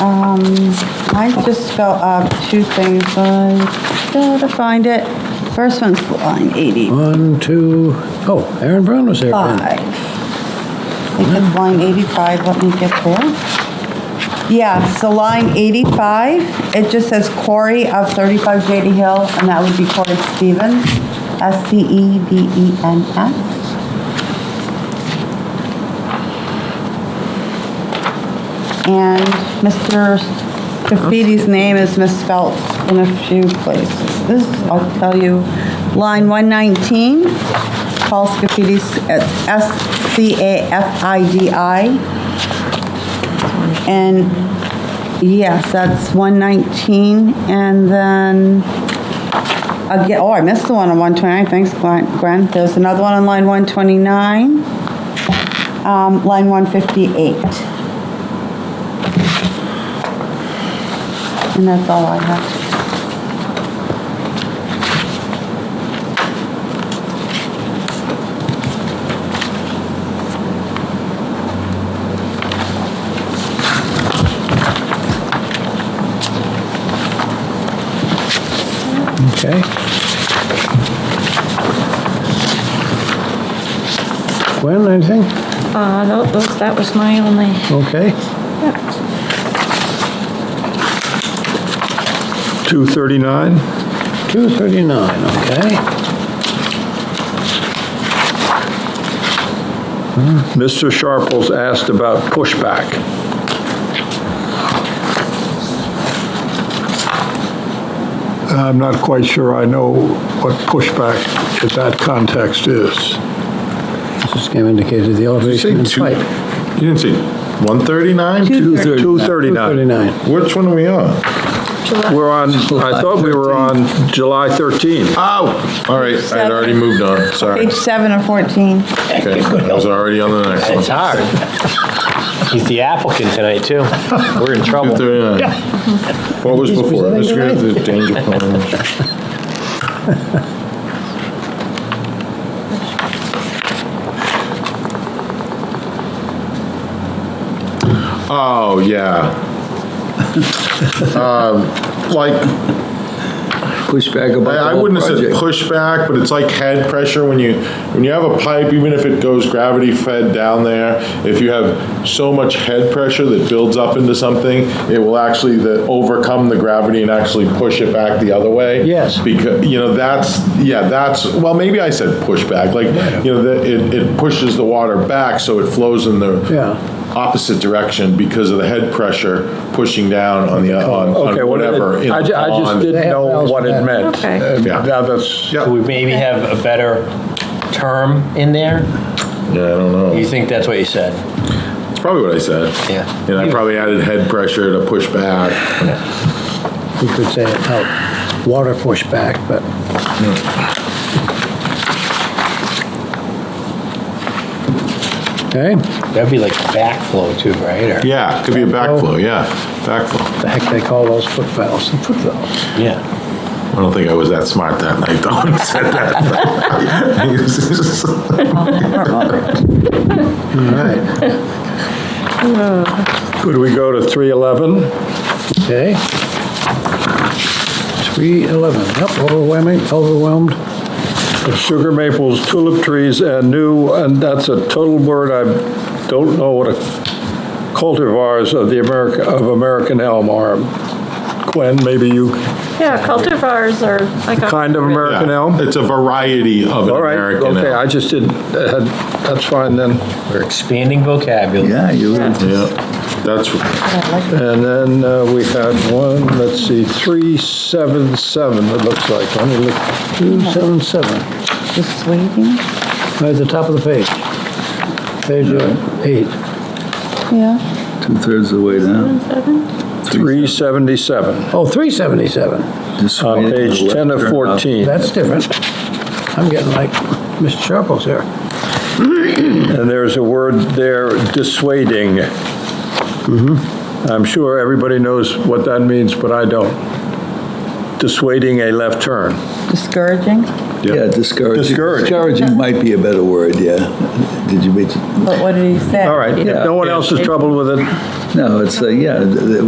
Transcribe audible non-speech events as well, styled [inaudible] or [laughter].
Um, I just spelled out two things, I gotta find it. First one's line One, two, oh, Aaron Brown was there. 85. then. I think it's line 85, let me get there. Yeah, so line 85, it just says Corey of 35 JD Hill, and that would be Corey Stevens, E S-T-E-V-E-N-S. And Mr. Graffiti's name is misspelled in a few places. This, I'll tell you, line 119, Paul Scafidi, S-C-A-F-I-D-I. And, yes, that's 119, and then, again, oh, I missed the one on 129, thanks Gwen. Gwen. There's another one on line 129, um, line 158. And that's all I have. Okay. Gwen, anything? Uh, tho- those, that was my only, Okay. 239, 239, okay. Mr. Hmm, Sharples asked about pushback. I'm not quite sure I know what pushback in that context is. This game indicated the elevation and height. You didn't see 139? 239. 239. Which one are we on? July, We're on, I thought we were on July 13. Oh, all right, I'd already moved on, sorry. Page seven of 14. Okay, I was already on the next one. It's hard. He's the applicant tonight, too. We're in trouble. 239. What was Is- was before? that Mr. under Grant, the danger [laughs] plan. Oh, yeah. Um, Like, pushback about I I the whole wouldn't have said project. pushback, but it's like head pressure when you, when you have a pipe, even if it goes gravity fed down there, if you have so much head pressure that builds up into something, it will actually the- overcome the gravity and actually push it back the other way. Yes. Because, you know, that's, yeah, that's, well, maybe I said pushback, like, you know, that it, it pushes the water back, so it flows in the Yeah. opposite direction because of the head pressure pushing down on the, on Okay, on well, whatever. in I ju- I on- just They didn't have know valves what for it that. meant. Okay. Uh, Yeah. Now, that's, Yep. Do we maybe have a better term in there? Yeah, I don't know. You think that's what you said? It's probably what I said. Yeah. And I probably added head pressure to push back. You could say it helped water pushback, but okay, That'd be like backflow, too, right? Or- Yeah, could be a backflow, yeah, backflow. the heck they call those foot valves, foot valves. Yeah. I don't think I was that smart that night, though, when I [laughs] said that. All right, could we go to 311? okay. 311, yep, overwhelming, overwhelmed. Sugar maples, tulip trees, and new, and that's a total word, I don't know what a cultivars of the America, of American elm are. Gwen, maybe you, yeah, cultivars are like. a- kind of American elm? It's a variety of an All right, American okay, I elm. just didn't, uh, that's fine then. We're expanding vocabulary. Yeah, you Yeah, that's, And then uh, we had one, let's see, 377, it looks like, let me look, 277, Just waiting. right at the top of the page. Page uh, eight. Yeah. two-thirds of the way down. Seven? 377, Oh, 377, Just on wait Uh, page for the 10 left of turn up. 14. that's different. I'm getting like Mr. Sharples here. And there's a word there, dissuading. I'm sure everybody knows what that means, but I don't. Dissuading a left turn. Discouraging, Yeah, discouraging. Discouraging. Discouraging might be a better word, yeah. Did you meet, but what did he say? All right, if no one else is troubled with it, no, it's, uh, yeah, th- th-